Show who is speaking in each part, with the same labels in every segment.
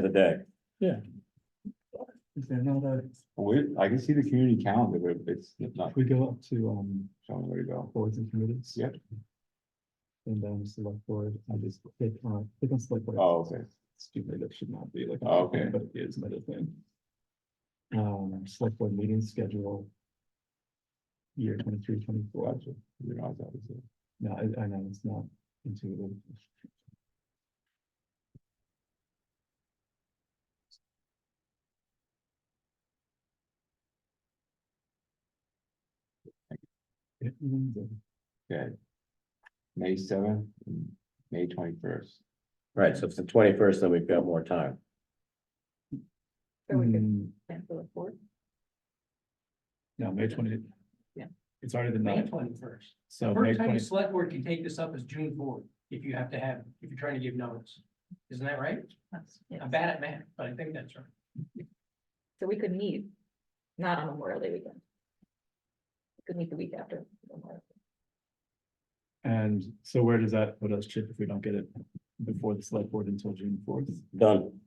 Speaker 1: the other day.
Speaker 2: Is there another,
Speaker 3: We, I can see the community calendar, but it's not
Speaker 2: if we go up to, um,
Speaker 3: showing where to go.
Speaker 2: boards and committees?
Speaker 3: Yep.
Speaker 2: And then select board, I just click on, click on select board.
Speaker 3: Oh, okay.
Speaker 2: Stupid, that should not be like.
Speaker 3: Oh, okay.
Speaker 2: But it is another thing. Um, select board meeting schedule. Year twenty-three, twenty-four.
Speaker 3: Gotcha. You know, that was it.
Speaker 2: No, I, I know, it's not intuitive. It means that
Speaker 3: Okay. May seventh, and May twenty-first.
Speaker 1: Right, so it's the twenty-first, then we've got more time.
Speaker 4: So we could
Speaker 2: Mm,
Speaker 4: plan for the fourth.
Speaker 2: No, May twenty.
Speaker 4: Yeah.
Speaker 2: It's already the
Speaker 5: May
Speaker 2: ninth,
Speaker 5: twenty-first.
Speaker 2: so Oh, May
Speaker 5: First time
Speaker 2: twenty,
Speaker 5: the select board can take this up is June fourth, if you have to have, if you're trying to give notice. Isn't that right?
Speaker 4: That's-
Speaker 5: I'm
Speaker 4: yes.
Speaker 5: bad at math, but I think that's right.
Speaker 4: So we could meet, not on Memorial Day weekend. We Could meet the week after. Memorial Day.
Speaker 2: and so where does that put us, Chip, if we don't get it before the select board until June fourth?
Speaker 1: Done,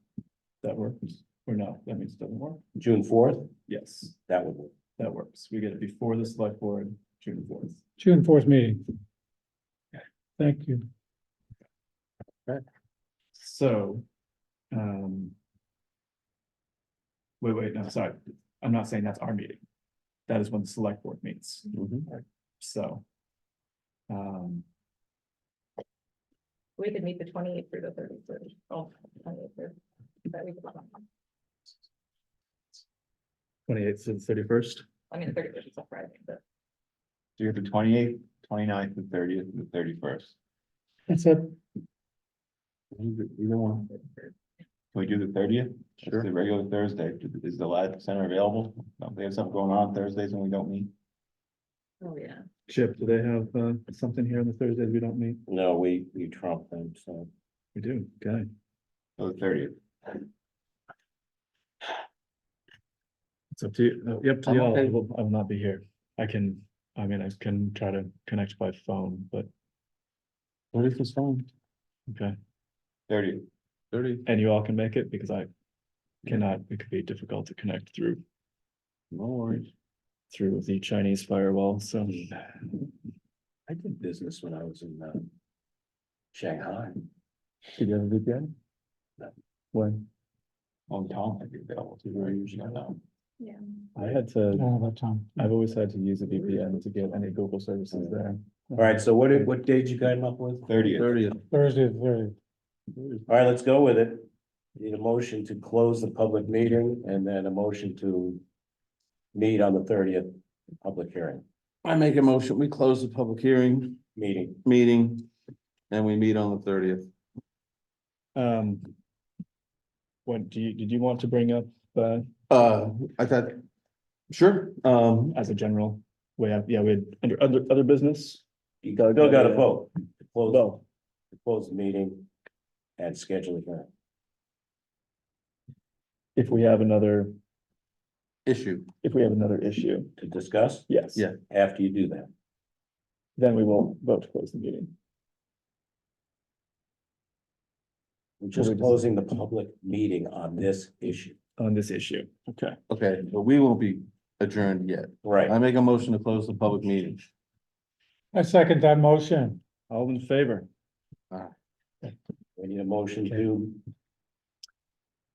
Speaker 2: That works, or no, that means it doesn't work?
Speaker 1: June fourth,
Speaker 2: Yes,
Speaker 1: that would work.
Speaker 2: that works, we get it before the select board, June fourth.
Speaker 6: June fourth meeting. Thank you.
Speaker 2: So, um. Wait, wait, no, sorry, I'm not saying that's our meeting. That is when the select board meets,
Speaker 3: Mm-hmm.
Speaker 2: so. Um,
Speaker 4: We could meet the twenty eighth through the thirty first. Oh. Twenty eighth through. That week. I
Speaker 2: twenty eighth to the thirty first.
Speaker 4: mean, the thirty first is a Friday, but
Speaker 3: So you have the 28th, 29th, the thirtieth, and the thirty-first.
Speaker 6: That's it.
Speaker 3: Either either one. Can we do the thirtieth?
Speaker 1: Sure.
Speaker 3: The regular Thursday, is the lab center available? Don't they have something going on Thursdays when we don't meet?
Speaker 4: oh, yeah.
Speaker 2: Chip, do they have uh something here on the Thursdays we don't meet?
Speaker 1: No, we, we trump them, so.
Speaker 2: We do, okay.
Speaker 3: Oh, the thirtieth.
Speaker 2: It's up to you, uh, yep, to
Speaker 3: I'm
Speaker 2: y'all, I
Speaker 3: okay.
Speaker 2: will, I will not be here. I can, I mean, I can try to connect by phone, but,
Speaker 3: What is this phone?
Speaker 2: okay.
Speaker 3: Thirty. Thirty.
Speaker 2: And you all can make it because I cannot, it could be difficult to connect through
Speaker 3: No worries.
Speaker 2: through the Chinese firewall, so.
Speaker 1: I did business when I was in, uh, Shanghai.
Speaker 3: Did you have a VPN?
Speaker 1: No.
Speaker 3: When? On Tom, I'd be available too, right? Usually I know.
Speaker 4: Yeah.
Speaker 2: I had to,
Speaker 6: All that time.
Speaker 2: I've always had to use a VPN to get any Google services there.
Speaker 1: All right, so what, did- what date you came up with?
Speaker 3: Thirtieth.
Speaker 1: Thirtieth.
Speaker 6: Thursday, very,
Speaker 1: All right, let's go with it. Need a motion to close the public meeting and then a motion to meet on the thirtieth public hearing,
Speaker 7: I make a motion, we close the public hearing
Speaker 1: meeting.
Speaker 7: meeting and we meet on the thirtieth.
Speaker 2: Um. What, do you, did you want to bring up, uh,
Speaker 7: Uh, I thought, sure, um,
Speaker 2: as a general, we have, yeah, we had, under, other, other business?
Speaker 1: You still gotta
Speaker 2: yeah.
Speaker 1: vote. to Close,
Speaker 2: Well,
Speaker 1: to close the meeting and schedule the hearing.
Speaker 2: if we have another,
Speaker 7: issue.
Speaker 2: if we have another issue,
Speaker 1: to discuss
Speaker 2: yes.
Speaker 7: Yeah.
Speaker 1: after you do that.
Speaker 2: Then we will vote to close the meeting.
Speaker 1: We're just
Speaker 2: Or we just-
Speaker 1: closing the public meeting on this issue.
Speaker 2: On this issue. Okay.
Speaker 7: Okay, but we won't be adjourned yet. I
Speaker 1: Right.
Speaker 7: make a motion to close the public meeting.
Speaker 6: I second that motion.
Speaker 2: All in favor?
Speaker 1: We need a motion to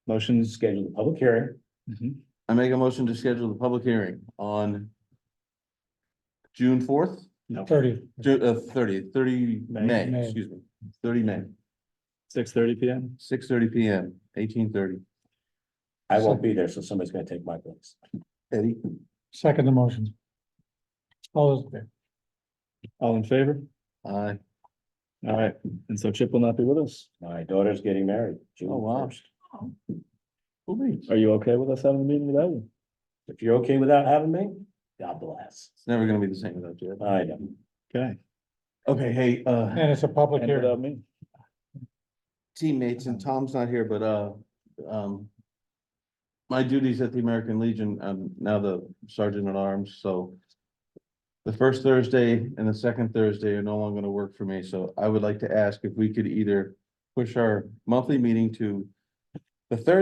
Speaker 2: Motions.
Speaker 1: schedule the public hearing.
Speaker 6: Mm-hmm.
Speaker 7: I make a motion to schedule the public hearing on June fourth,
Speaker 6: Thirty.
Speaker 7: Ju- uh, 30th, 30
Speaker 2: May.
Speaker 7: May,
Speaker 6: May.
Speaker 7: excuse me, thirty May,
Speaker 2: Six thirty P M.
Speaker 7: six thirty P M, eighteen thirty.
Speaker 1: I won't be there, so somebody's gonna take my place.
Speaker 7: Eddie?
Speaker 6: Second the motion. All those in favor?
Speaker 2: All in favor?
Speaker 7: Aye.
Speaker 2: All right, and so Chip will not be with us.
Speaker 1: My daughter's getting married. June
Speaker 7: Oh, wow.
Speaker 1: 1st.
Speaker 2: Are you okay with us having a meeting without you?
Speaker 1: If you're okay without having me, God bless.
Speaker 7: It's never gonna be the same without you.
Speaker 1: I know.
Speaker 2: Okay.
Speaker 7: Okay, hey, uh.
Speaker 6: And it's a public
Speaker 2: And
Speaker 6: hearing.
Speaker 2: without me?
Speaker 7: teammates, and Tom's not here, but, uh, um. My duties at the American Legion, I'm now the sergeant at arms, so. The first Thursday and the second Thursday are no longer gonna work for me, so I would like to ask if we could either push our monthly meeting to. The third